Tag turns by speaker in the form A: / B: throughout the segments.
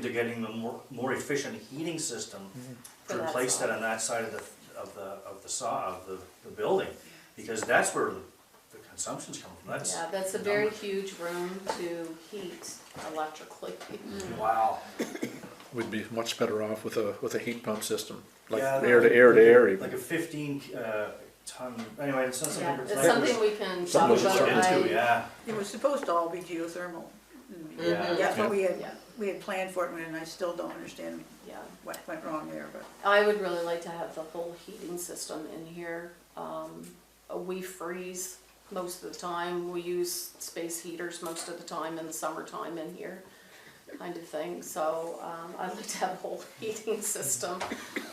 A: they're getting the more, more efficient heating system
B: For
A: to
B: that
A: replace
B: side.
A: that on that side of the, of the, of the saw, of the, the building. Because that's where the the consumption's coming from, that's,
B: Yeah, that's a very huge room to heat electrically.
A: wow.
C: We'd be much better off with a, with a heat pump system, like
A: Yeah,
C: air to air to air even.
A: Like a fifteen, uh, ton, anyway, it's not
B: Yeah,
A: something.
B: it's something we can talk
C: Something
B: about.
C: we should look
A: Into,
B: I-
A: yeah,
D: It was supposed to all be geothermal.
A: Yeah.
D: That's what we had,
B: Yeah.
D: we had planned for it, and I still don't understand
B: Yeah,
D: what went wrong there, but.
B: I would really like to have the whole heating system in here. Um, uh, we freeze most of the time, we use space heaters most of the time in the summertime in here, kind of thing, so, um, I'd like to have a whole heating system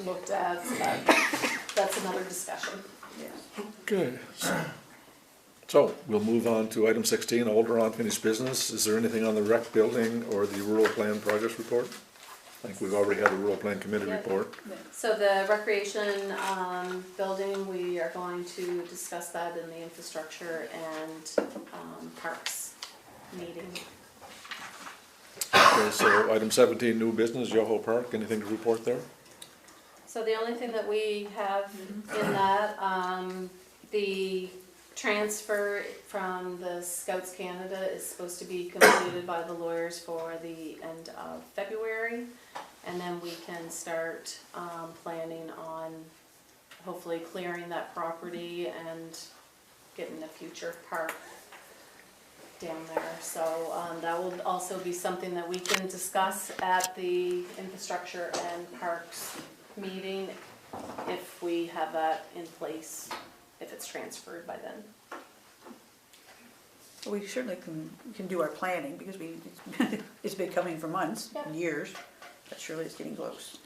B: looked at, so that- that's another discussion.
D: Yeah.
C: Good. So we'll move on to item sixteen, older unfinished business. Is there anything on the rec building or the rural plan progress report? I think we've already had a rural plan committee
B: Yeah.
C: report.
B: So the recreation, um, building, we are going to discuss that in the infrastructure and, um, parks meeting.
C: Okay, so item seventeen, new business, Yoho Park, anything to report there?
B: So the only thing that we have in that, um, the transfer from the Scouts Canada is supposed to be completed by the lawyers for the end of February. And then we can start, um, planning on hopefully clearing that property and getting the future park down there. So, um, that will also be something that we can discuss at the infrastructure and parks meeting if we have that in place, if it's transferred by then.
D: Well, We certainly can, can do our planning, because we, it's been coming for months,
B: Yeah.
D: and years, but surely it's getting close.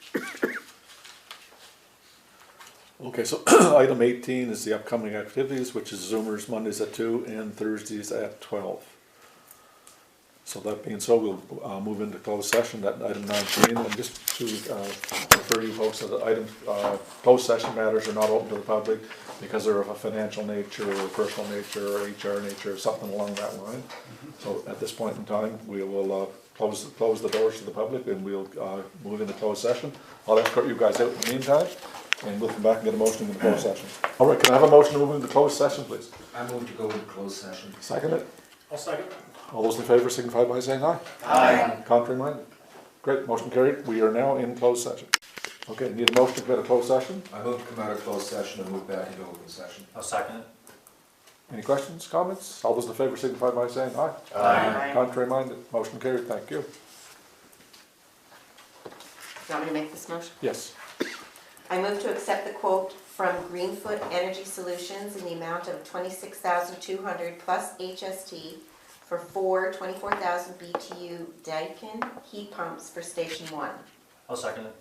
C: Okay, so item eighteen is the upcoming activities, which is Zoomers Mondays at two and Thursdays at twelve. So that being so, we'll uh, move into closed session, that item nineteen, and just to uh, refer you folks to the item, uh, closed session matters are not open to the public because they're of a financial nature, or personal nature, or HR nature, or something along that line. So at this point in time, we will uh, close, close the doors to the public and we'll uh, move into closed session. I'll escort you guys out in the meantime, and we'll come back and get a motion in the closed session. All right, can I have a motion to move into closed session, please?
E: I move to go into closed session.
C: Second it.
A: I'll second.
C: All those in favor signify by saying aye. Aye. Contrary minded? Great, motion carried. We are now in closed session. Okay, need a motion to go into closed session?
E: I move to come out of closed session and move back into open session.
A: I'll second it.
C: Any questions, comments? All those in favor signify by saying aye.
E: Aye.
C: Contrary minded? Motion carried, thank you.
F: Do you want me to make this motion?
C: Yes.
F: I move to accept the quote from Greenfoot Energy Solutions in the amount of twenty-six thousand two hundred plus HST for four twenty-four thousand BTU Daikin heat pumps for Station One.
A: I'll second it.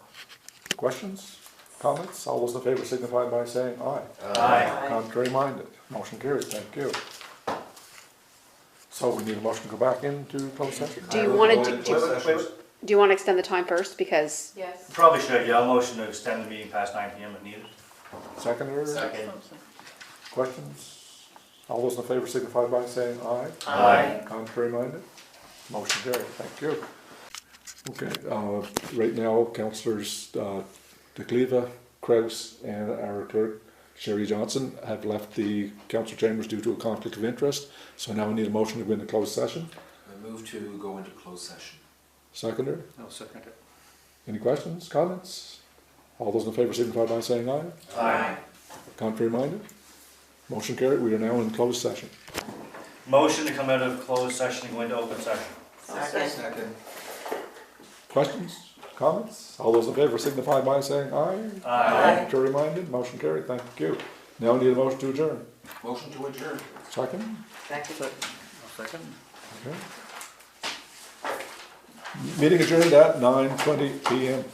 C: Questions, comments? All those in favor signify by saying aye.
E: Uh,
G: Uh,
A: Aye.
C: Contrary minded? Motion carried, thank you. So we need a motion to go back into closed session?
G: Do you
E: I move
G: wanna
E: go
G: do-
E: into
A: Wait,
E: closed
A: wait,
E: session.
A: wait, wait.
G: Do you want to extend the time first? Because
B: Yes.
A: Probably should, yeah, I'll motion to extend the meeting past nine PM if needed.
C: Seconder?
E: Second.
C: Questions? All those in favor signify by saying aye.
A: Aye.
C: Contrary minded? Motion carried, thank you. Okay, uh, right now, councillors, uh, DeCleva, Kraus, and our clerk, Sherry Johnson, have left the council chambers due to a conflict of interest. So now we need a motion to go into closed session.
E: I move to go into closed session.
C: Seconder,
A: I'll second it.
C: any questions, comments? All those in favor signify by saying aye.
A: Aye.
C: Contrary minded? Motion carried, we are now in closed session.
A: Motion to come out of closed session and go into open session.
F: Second.
E: Second.
C: Questions, comments? All those in favor signify by saying aye.
A: Aye.
C: Contrary minded, motion carried, thank you. Now we need a motion to adjourn.
E: Motion to adjourn.
C: Second?
F: Second.
C: Okay. Meeting adjourned at nine twenty PM.